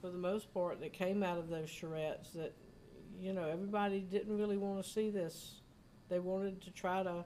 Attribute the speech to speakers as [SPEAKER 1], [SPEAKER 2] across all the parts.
[SPEAKER 1] for the most part, that came out of those charrettes that, you know, everybody didn't really want to see this. They wanted to try to,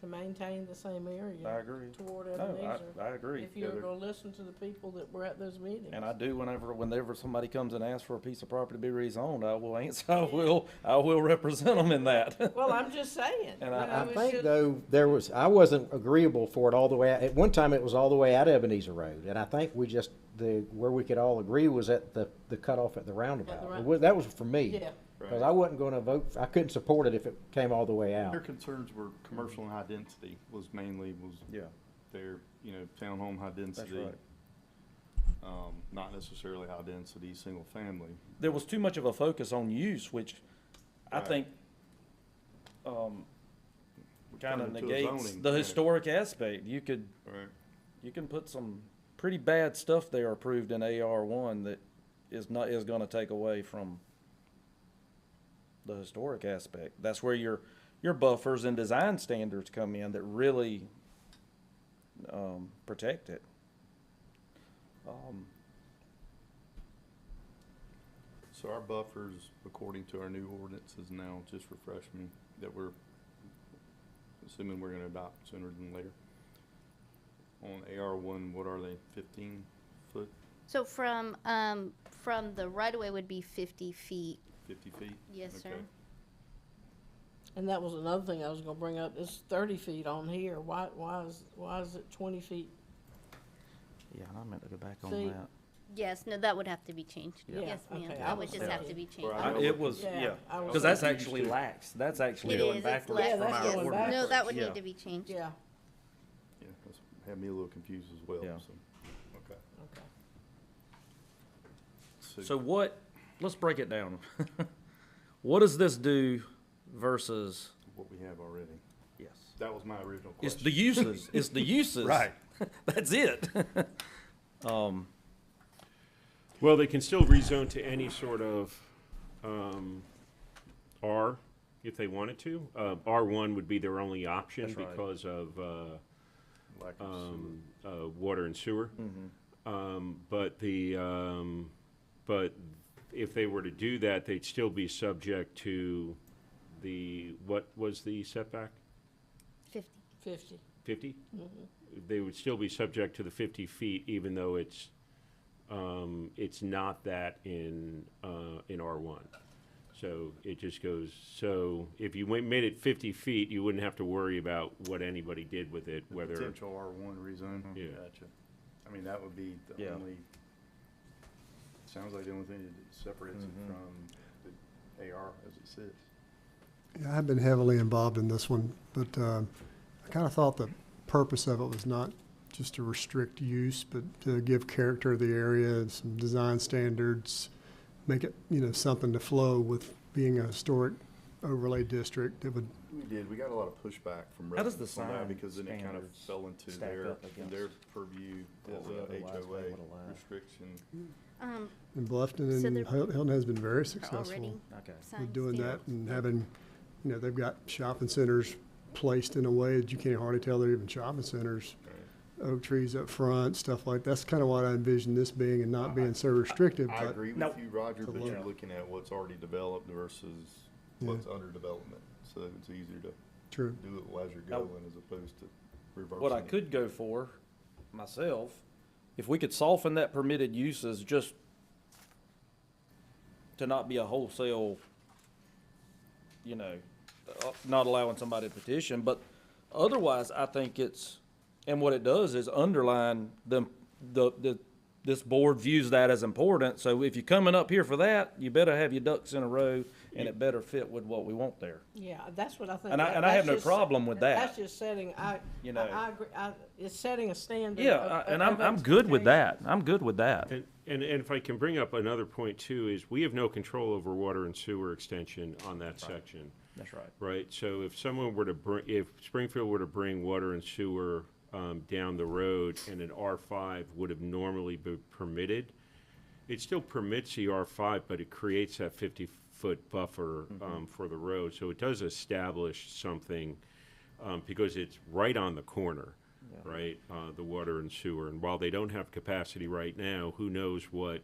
[SPEAKER 1] to maintain the same
[SPEAKER 2] I
[SPEAKER 1] area
[SPEAKER 2] agree.
[SPEAKER 1] toward
[SPEAKER 2] No,
[SPEAKER 1] Ebenezer.
[SPEAKER 2] I, I agree.
[SPEAKER 1] If you were
[SPEAKER 2] They're-
[SPEAKER 1] gonna listen to the people that were at those meetings.
[SPEAKER 2] And I do whenever, whenever somebody comes and asks for a piece of property to be rezoned, I will answer, I will, I will represent them in that.
[SPEAKER 1] Well, I'm just saying.
[SPEAKER 2] And I-
[SPEAKER 1] you know,
[SPEAKER 2] I
[SPEAKER 1] it's
[SPEAKER 3] think
[SPEAKER 1] just-
[SPEAKER 3] though there was I wasn't agreeable for it all the way. Out. At one time, it was all the way out of Ebenezer Road, and I think we just the where we could all agree was at the the cutoff at the roundabout.
[SPEAKER 1] round-
[SPEAKER 3] Well, That was for me
[SPEAKER 1] Yeah,
[SPEAKER 3] because I wasn't going to vote. For, I couldn't support it if it came all the way
[SPEAKER 4] Their
[SPEAKER 3] out.
[SPEAKER 4] concerns were commercial and high density was mainly was
[SPEAKER 2] Yeah,
[SPEAKER 4] their, you know, townhome high
[SPEAKER 2] that's
[SPEAKER 4] density.
[SPEAKER 2] right.
[SPEAKER 4] Um, not necessarily high density, single family.
[SPEAKER 2] There was too much of a focus on use, which I
[SPEAKER 4] Right.
[SPEAKER 2] think, um,
[SPEAKER 4] which
[SPEAKER 2] kind of
[SPEAKER 4] turned into a
[SPEAKER 2] negates
[SPEAKER 4] zoning
[SPEAKER 2] the
[SPEAKER 4] panic,
[SPEAKER 2] historic aspect. You could,
[SPEAKER 4] Right.
[SPEAKER 2] you can put some pretty bad stuff there approved in AR one that is not, is gonna take away from the historic aspect. That's where your, your buffers and design standards come in that really, um, protect it. Um,
[SPEAKER 4] So our buffers, according to our new ordinances now, just refresh me, that we're assuming we're gonna adopt sooner than later. On AR one, what are they, fifteen foot,
[SPEAKER 5] So from, um, from the right of way would be fifty feet.
[SPEAKER 4] fifty feet?
[SPEAKER 5] Yes, sir.
[SPEAKER 4] Okay.
[SPEAKER 1] and that was another thing I was gonna bring up, it's thirty feet on here, why, why is, why is it twenty feet?
[SPEAKER 2] yeah, and I meant to go back
[SPEAKER 1] See,
[SPEAKER 5] Yes, no, that would have to be changed.
[SPEAKER 1] Yeah.
[SPEAKER 5] Yes,
[SPEAKER 1] Yeah,
[SPEAKER 5] ma'am.
[SPEAKER 1] okay, I
[SPEAKER 5] That
[SPEAKER 1] was
[SPEAKER 5] would just have to
[SPEAKER 1] thinking-
[SPEAKER 5] be changed.
[SPEAKER 4] Well, I
[SPEAKER 2] I-
[SPEAKER 4] know
[SPEAKER 2] It
[SPEAKER 4] what-
[SPEAKER 2] was,
[SPEAKER 1] Yeah,
[SPEAKER 2] yeah,
[SPEAKER 1] I was-
[SPEAKER 2] because that's
[SPEAKER 4] That's what we used
[SPEAKER 2] actually
[SPEAKER 4] to.
[SPEAKER 2] lax, that's actually
[SPEAKER 5] It
[SPEAKER 2] going
[SPEAKER 5] is, it's
[SPEAKER 2] backwards
[SPEAKER 5] less.
[SPEAKER 1] Yeah,
[SPEAKER 2] from
[SPEAKER 1] that's
[SPEAKER 2] our
[SPEAKER 1] going
[SPEAKER 2] ordinance.
[SPEAKER 5] No, that would
[SPEAKER 2] Yeah.
[SPEAKER 5] need to be changed.
[SPEAKER 1] Yeah,
[SPEAKER 4] Yeah, that's had me a little confused as well,
[SPEAKER 2] Yeah.
[SPEAKER 4] so, okay.
[SPEAKER 1] okay.
[SPEAKER 2] So what, let's break it down. What does this do versus?
[SPEAKER 4] What we have already.
[SPEAKER 2] Yes.
[SPEAKER 4] That was my original
[SPEAKER 2] It's
[SPEAKER 4] question.
[SPEAKER 2] the uses, it's the uses.
[SPEAKER 4] Right.
[SPEAKER 2] That's it.
[SPEAKER 6] Well, they can still rezone to any sort of um, R if they wanted to. Uh, R1 would be their only option
[SPEAKER 2] That's right.
[SPEAKER 6] because of uh,
[SPEAKER 4] Like a sewer.
[SPEAKER 6] um, uh, water and sewer.
[SPEAKER 2] Mm-hmm.
[SPEAKER 6] Um, But the, um, but if they were to do that, they'd still be subject to the, what was the setback?
[SPEAKER 5] Fifty.
[SPEAKER 1] Fifty.
[SPEAKER 6] 50?
[SPEAKER 4] Mm-hmm.
[SPEAKER 6] They would still be subject to the 50 feet, even though it's, um, it's not that in, uh, in R1. So it just goes, so if you went- made it 50 feet, you wouldn't have to worry about what anybody did with it,
[SPEAKER 4] The
[SPEAKER 6] whether,
[SPEAKER 4] Potential R one rezone.
[SPEAKER 6] Yeah.
[SPEAKER 4] Gotcha. I mean, that would be the
[SPEAKER 2] Yeah.
[SPEAKER 4] only, sounds like the only thing that separates it
[SPEAKER 2] Mm-hmm.
[SPEAKER 4] from the AR as it sits.
[SPEAKER 7] Yeah, I've been heavily involved in this one, but uh, I kind of thought the purpose of it was not just to restrict use, but to give character to the area and some design standards, make it, you know, something to flow with being a historic overlay district. It would,
[SPEAKER 4] We did, we got a lot of pushback from
[SPEAKER 2] How does the
[SPEAKER 4] residents on that
[SPEAKER 2] sign
[SPEAKER 4] because then it kind of
[SPEAKER 2] standards
[SPEAKER 4] fell into
[SPEAKER 2] stack
[SPEAKER 4] their,
[SPEAKER 2] up
[SPEAKER 4] their
[SPEAKER 2] against
[SPEAKER 4] purview
[SPEAKER 2] what
[SPEAKER 4] as
[SPEAKER 2] we
[SPEAKER 4] a
[SPEAKER 2] otherwise
[SPEAKER 4] HOA
[SPEAKER 2] would allow?
[SPEAKER 4] restriction.
[SPEAKER 5] Um,
[SPEAKER 7] in Bluffton
[SPEAKER 5] So
[SPEAKER 7] and
[SPEAKER 5] they're-
[SPEAKER 7] Hil- Hilton has been very
[SPEAKER 5] are already
[SPEAKER 7] successful
[SPEAKER 2] Okay.
[SPEAKER 7] with
[SPEAKER 5] signed
[SPEAKER 7] doing that
[SPEAKER 5] standards.
[SPEAKER 7] and having, you know, they've got shopping centers placed in a way that you can't hardly tell they're even shopping centers. Oak trees up front, stuff like, that's kind of what I envisioned this being and not being so restrictive,
[SPEAKER 4] I
[SPEAKER 7] but
[SPEAKER 4] agree
[SPEAKER 2] Now-
[SPEAKER 4] with you, Roger,
[SPEAKER 7] To
[SPEAKER 4] but you're
[SPEAKER 7] look.
[SPEAKER 4] looking at what's already developed versus what's under development. So it's easier to
[SPEAKER 7] true.
[SPEAKER 4] do it as you're
[SPEAKER 2] Now-
[SPEAKER 4] going as opposed to reversing.
[SPEAKER 2] What I
[SPEAKER 4] it.
[SPEAKER 2] could go for myself, if we could soften that permitted uses just to not be a wholesale, you know, uh, not allowing somebody to petition, but otherwise, I think it's, and what it does is underline the, the, the, this board views that as important, so if you're coming up here for that, you better have your ducks in a row, and it better fit with what we want there.
[SPEAKER 1] Yeah, that's what I think.
[SPEAKER 2] And I,
[SPEAKER 1] that-
[SPEAKER 2] and I have
[SPEAKER 1] that's
[SPEAKER 2] no
[SPEAKER 1] just-
[SPEAKER 2] problem with that.
[SPEAKER 1] That's just setting, I,
[SPEAKER 2] You
[SPEAKER 1] I,
[SPEAKER 2] know.
[SPEAKER 1] I agree, I, it's setting a standard.
[SPEAKER 2] Yeah,
[SPEAKER 1] of-
[SPEAKER 2] I- and
[SPEAKER 1] of
[SPEAKER 2] I'm, I'm good with
[SPEAKER 1] expectation.
[SPEAKER 2] that. I'm good with that.
[SPEAKER 6] and, and and if I can bring up another point too, is we have no control over water and sewer extension on that section.
[SPEAKER 2] That's right.
[SPEAKER 6] right? So if someone were to bring, if Springfield were to bring water and sewer um, down the road and an R5 would have normally been permitted, it still permits the R5, but it creates that 50-foot buffer um, for the road. So it does establish something um, because it's right on the corner, right? Uh, The water and sewer. And while they don't have capacity right now, who knows what